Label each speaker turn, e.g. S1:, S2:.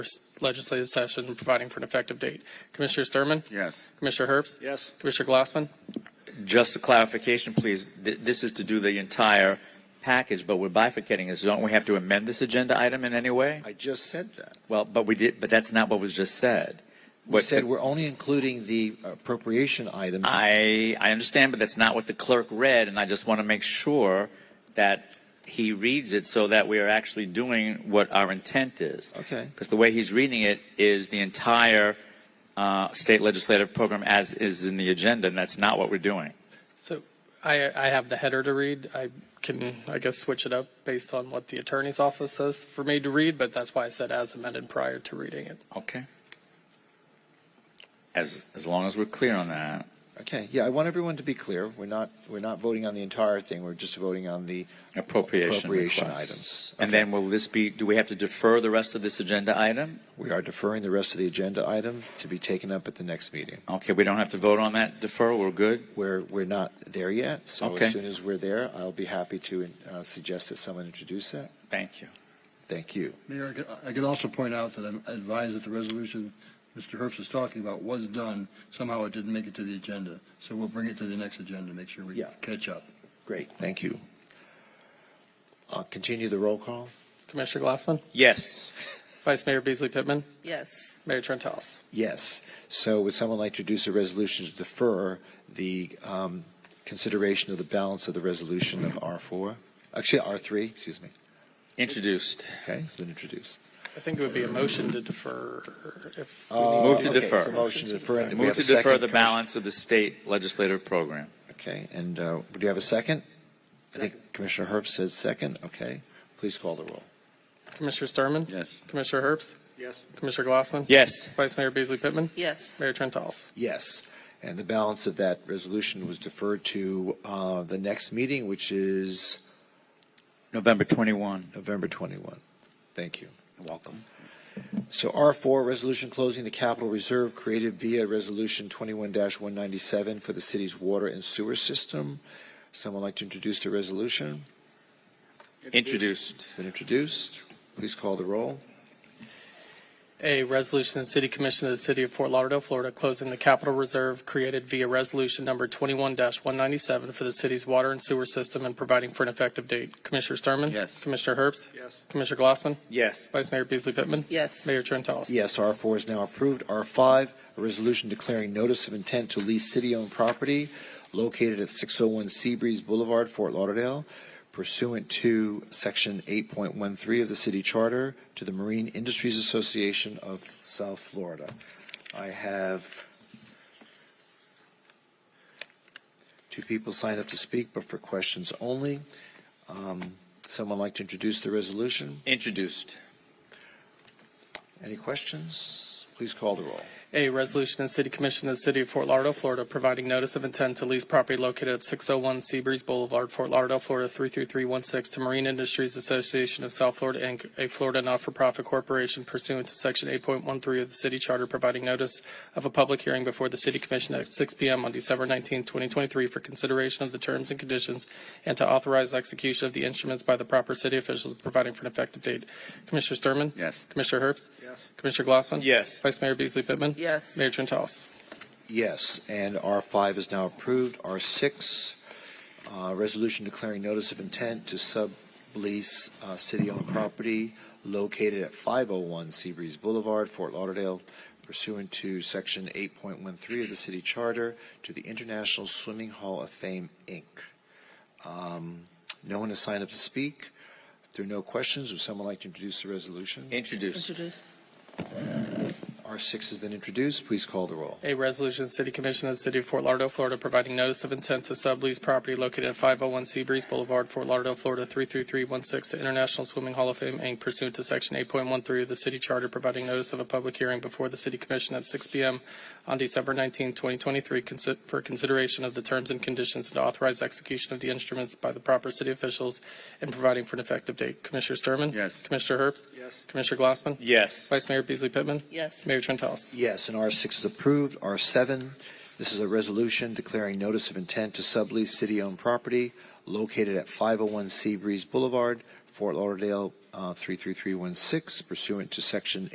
S1: legislative session and providing for an effective date. Commissioner Sturman?
S2: Yes.
S1: Commissioner Herbst?
S2: Yes.
S1: Commissioner Glassman?
S3: Just a clarification, please. Th- This is to do the entire package, but we're bifurcating this. Don't we have to amend this agenda item in any way?
S2: I just said that.
S3: Well, but we did, but that's not what was just said.
S2: We
S3: What-
S2: said we're only including the appropriation items.
S3: I, I understand, but that's not what the clerk read, and I just want to make sure that he reads it so that we are actually doing what our intent is.
S2: Okay.
S3: Because the way he's reading it is the entire uh, state legislative program as is in the agenda, and that's not what we're doing.
S1: So I, I have the header to read. I can, I guess, switch it up based on what the attorney's office says for me to read, but that's why I said as amended prior to reading it.
S3: Okay. As, as long as we're clear on that.
S2: Okay, yeah, I want everyone to be clear. We're not, we're not voting on the entire thing. We're just voting on the
S3: Appropriation
S2: appropriation
S3: requests.
S2: items.
S3: And
S2: Okay.
S3: then will this be, do we have to defer the rest of this agenda item?
S2: We are deferring the rest of the agenda item to be taken up at the next meeting.
S3: Okay, we don't have to vote on that defer, we're good?
S2: We're, we're not there yet, so
S3: Okay.
S2: as soon as we're there, I'll be happy to uh, suggest that someone introduce that.
S3: Thank you.
S2: Thank you.
S4: Mayor, I could- I could also point out that I'm advised that the resolution Mr. Herbst is talking about was done. Somehow it didn't make it to the agenda. So we'll bring it to the next agenda, to make sure we
S2: Yeah.
S4: catch up.
S2: Great, thank you. Uh, Continue the roll call.
S1: Commissioner Glassman?
S3: Yes.
S1: Vice Mayor Beasley Pittman?
S5: Yes.
S1: Mayor Trentalis?
S2: Yes. So would someone like to introduce a resolution to defer the um, consideration of the balance of the resolution of R4? Actually, R3, excuse me.
S3: Introduced.
S2: Okay, it's been introduced.
S1: I think it would be a motion to defer if. we
S2: Uh,
S1: need
S3: Move to
S2: okay,
S3: defer.
S2: it's a motion to defer. and do we
S3: Move
S2: have
S3: to
S2: a second,
S3: defer the
S2: Commissioner?
S3: balance of the state legislative program.
S2: Okay, and uh, do you have a second? I think Commissioner Herbst said second. Okay, please call the roll.
S1: Commissioner Sturman?
S3: Yes.
S1: Commissioner Herbst? Yes. Commissioner Glassman?
S3: Yes.
S1: Vice Mayor Beasley Pittman?
S5: Yes.
S1: Mayor Trentalis?
S2: Yes. And the balance of that resolution was deferred to uh, the next meeting, which is
S3: November 21.
S2: November 21. Thank you.
S3: Welcome.
S2: So R4, resolution closing the capital reserve created via Resolution 21-197 for the city's water and sewer system. Someone like to introduce the resolution?
S3: Introduced.
S2: It's been introduced. Please call the roll.
S1: A resolution of the City Commission of the City of Fort Lauderdale, Florida, closing the capital reserve created via Resolution Number 21-197 for the city's water and sewer system and providing for an effective date. Commissioner Sturman?
S3: Yes.
S1: Commissioner Herbst? Yes. Commissioner Glassman?
S3: Yes.
S1: Vice Mayor Beasley Pittman?
S5: Yes.
S1: Mayor Trentalis?
S2: Yes, R4 is now approved. R5, a resolution declaring notice of intent to lease city-owned property located at 601 Seabreeze Boulevard, Fort Lauderdale, pursuant to Section 8.13 of the city charter to the Marine Industries Association of South Florida. I have two people signed up to speak, but for questions only. Um, Someone like to introduce the resolution?
S3: Introduced.
S2: Any questions? Please call the roll.
S1: A resolution of the City Commission of the City of Fort Lauderdale, Florida, providing notice of intent to lease property located at 601 Seabreeze Boulevard, Fort Lauderdale, Florida 33316 to Marine Industries Association of South Florida, Inc., a Florida not-for-profit corporation pursuant to Section 8.13 of the city charter, providing notice of a public hearing before the City Commission at 6 p.m. on December 19, 2023, for consideration of the terms and conditions and to authorize execution of the instruments by the proper city officials, providing for an effective date. Commissioner Sturman?
S3: Yes.
S1: Commissioner Herbst? Yes. Commissioner Glassman?
S3: Yes.
S1: Vice Mayor Beasley Pittman?
S5: Yes.
S1: Mayor Trentalis.
S2: Yes, and R5 is now approved. R6, uh, resolution declaring notice of intent to sublease uh, city-owned property located at 501 Seabreeze Boulevard, Fort Lauderdale, pursuant to Section 8.13 of the city charter to the International Swimming Hall of Fame, Inc. Um, No one has signed up to speak. If there are no questions, would someone like to introduce the resolution?
S3: Introduced.
S5: Introduce.
S2: R6 has been introduced. Please call the roll.
S1: A resolution, of the City Commission of the City of Fort Lauderdale, Florida, providing notice of intent to sublease property located at 501 Seabreeze Boulevard, Fort Lauderdale, Florida 33316 to International Swimming Hall of Fame, Inc., pursuant to Section 8.13 of the city charter, providing notice of a public hearing before the City Commission at 6 p.m. on December 19, 2023, consi- for consideration of the terms and conditions and to authorize execution of the instruments by the proper city officials and providing for an effective date. Commissioner Sturman?
S3: Yes.
S1: Commissioner Herbst? Yes. Commissioner Glassman?
S3: Yes.
S1: Vice Mayor Beasley Pittman?
S5: Yes.
S1: Mayor Trentalis.
S2: Yes, and R6 is approved. R7, this is a resolution declaring notice of intent to sublease city-owned property located at 501 Seabreeze Boulevard, Fort Lauderdale, uh, 33316, pursuant to Section